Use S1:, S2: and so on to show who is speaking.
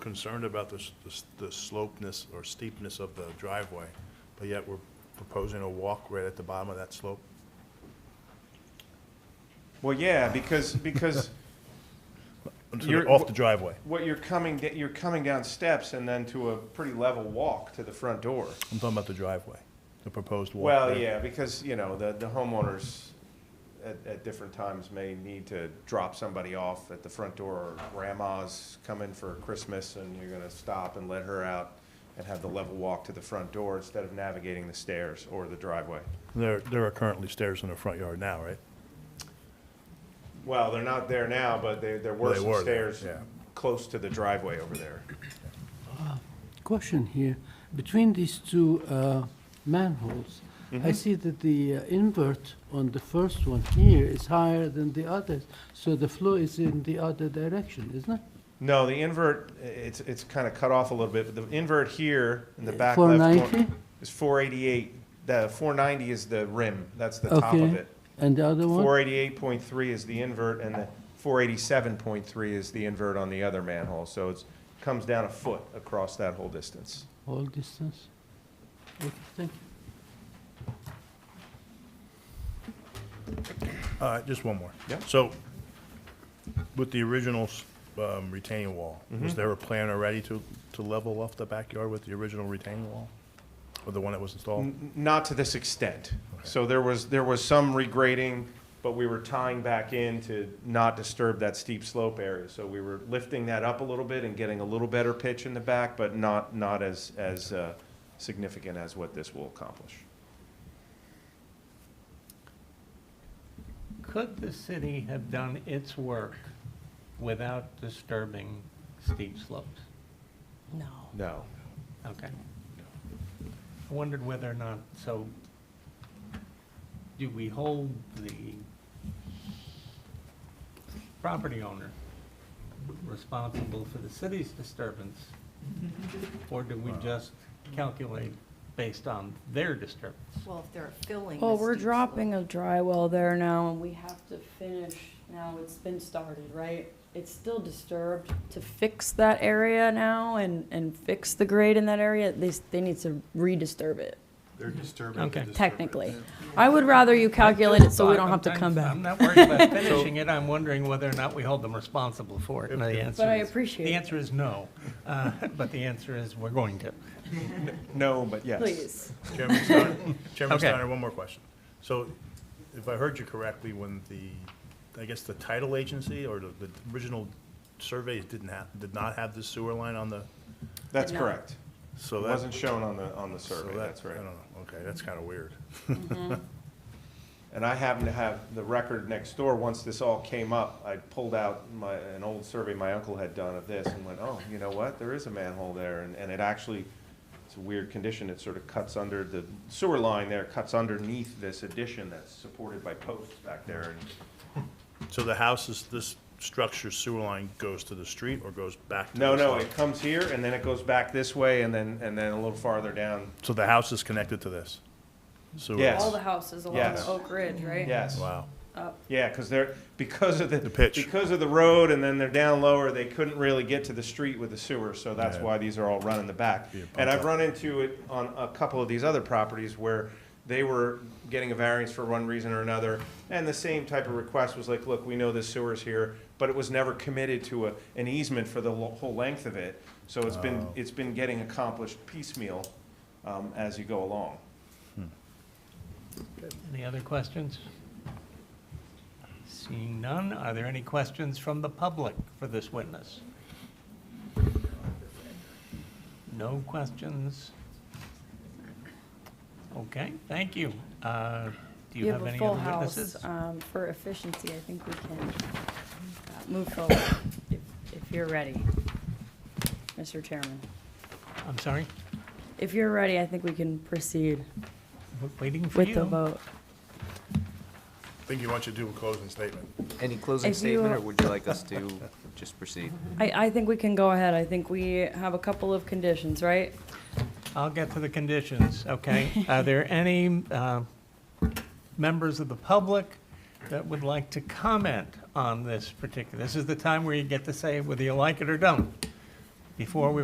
S1: concerned about the, s- the s- the slopeness or steepness of the driveway, but yet we're proposing a walk right at the bottom of that slope?
S2: Well, yeah, because, because
S1: To the-
S2: You're-
S1: Off the driveway?
S2: what you're coming, da- you're coming down steps and then to a pretty level walk to the front door.
S1: I'm talking about the driveway, the proposed walk.
S2: Well,
S1: there.
S2: yeah, because, you know, the, the homeowners at, at different times may need to drop somebody off at the front door, or grandma's coming for Christmas, and you're gonna stop and let her out and have the level walk to the front door instead of navigating the stairs or the driveway.
S1: There, there are currently stairs in the front yard now, right?
S2: Well, they're not there now, but there, there
S1: Well,
S2: were
S1: they
S2: some
S1: were there,
S2: stairs
S1: yeah.
S2: close to the driveway over there.
S3: Question here, between these two uh, manholes,
S2: Mm-hmm.
S3: I see that the uh, invert on the first one here is higher than the others, so the flow is in the other direction, isn't it?
S2: No, the invert, i- it's, it's kind of cut off a little bit, but the invert here in the back left
S3: 490?
S2: corner is four eighty-eight. The four ninety is the rim, that's the top of
S3: Okay.
S2: it.
S3: And the other one?
S2: Four eighty-eight point three is the invert, and the four eighty-seven point three is the invert on the other manhole, so it's, comes down a foot across that whole distance.
S3: All distance? Okay, thank you.
S1: All right, just one more.
S2: Yeah.
S1: So with the original s- um, retaining wall,
S2: Mm-hmm.
S1: was there a plan already to, to level off the backyard with the original retaining wall? Or the one that was installed?
S2: N- Not to this extent. So there was, there was some regrading, but we were tying back in to not disturb that steep slope area. So we were lifting that up a little bit and getting a little better pitch in the back, but not, not as, as uh, significant as what this will accomplish.
S4: Could the city have done its work without disturbing steep slopes?
S5: No.
S2: No.
S4: Okay. I wondered whether or not, so do we hold the property owner responsible for the city's disturbance? Or do we just calculate based on their disturbance?
S5: Well, if they're filling.
S6: Well,
S5: the
S6: we're
S5: steep
S6: dropping
S5: slope.
S6: a dry well there now, and we have to finish, now it's been started, right? It's still disturbed, to fix that area now and, and fix the grade in that area, they, s- they need to re-disturb it,
S7: They're disturbing.
S4: Okay.
S6: technically. I would rather you calculate it so we don't have to come back.
S4: I'm not worried about finishing it, I'm wondering whether or not we hold them responsible for it, and the answer is.
S6: But I appreciate
S4: The
S6: it.
S4: answer is no, Uh, but the answer is we're going to.
S2: No, but yes.
S6: Please.
S1: Chairman Steiner, Chairman
S4: Okay.
S1: Steiner, one more question. So if I heard you correctly, when the, I guess the title agency or the, the original surveys didn't have, did not have the sewer line on the,
S2: That's
S6: No.
S2: correct. It
S1: so that.
S2: wasn't shown on the, on the
S1: so that-
S2: survey, that's right.
S1: I don't know, okay, that's kind of weird.
S2: And I happen to have the record next door, once this all came up, I pulled out my, an old survey my uncle had done of this and went, oh, you know what, there is a manhole there, and, and it actually, it's a weird condition, it sort of cuts under, the sewer line there cuts underneath this addition that's supported by posts back there, and,
S1: So the house is, this structure sewer line goes to the street or goes back to?
S2: no,
S1: this
S2: no,
S1: line?
S2: it comes here, and then it goes back this way, and then, and then a little farther down,
S1: So the house is connected to this? Sewer?
S2: Yes.
S6: All the houses along
S2: Yes.
S6: Oak Ridge, right?
S2: yes.
S1: Wow.
S2: Yeah, because they're, because of the.
S1: The pitch.
S2: Because of the road and then they're down lower, they couldn't really get to the street with the sewer, so that's
S1: Yeah.
S2: why these are all run in the back.
S1: Yeah, pump
S2: And I've
S1: up.
S2: run into it on a couple of these other properties where they were getting a variance for one reason or another. And the same type of request was like, look, we know this sewer's here, but it was never committed to a, an easement for the lo- whole length of it. So it's been,
S1: Oh.
S2: it's been getting accomplished piecemeal, um, as you go along.
S4: Any other questions? Seeing none, are there any questions from the public for this witness? No questions? Okay, thank you. Uh, Do you have
S6: a
S4: any
S6: full
S4: other
S6: house.
S4: witnesses?
S6: Um, for efficiency, I think we can uh, move forward if, if you're ready, Mr. Chairman.
S4: I'm sorry,
S6: If you're ready, I think we can proceed
S4: we're waiting for you.
S6: with the vote.
S1: I think you want you to do a closing statement.
S7: Any closing
S6: If you-
S7: statement, or would you like us to just proceed?
S6: I, I think we can go ahead. I think we have a couple of conditions, right?
S4: I'll get to the conditions, okay? Are there any uh, members of the public that would like to comment on this particular? This is the time where you get to say whether you like it or don't. before we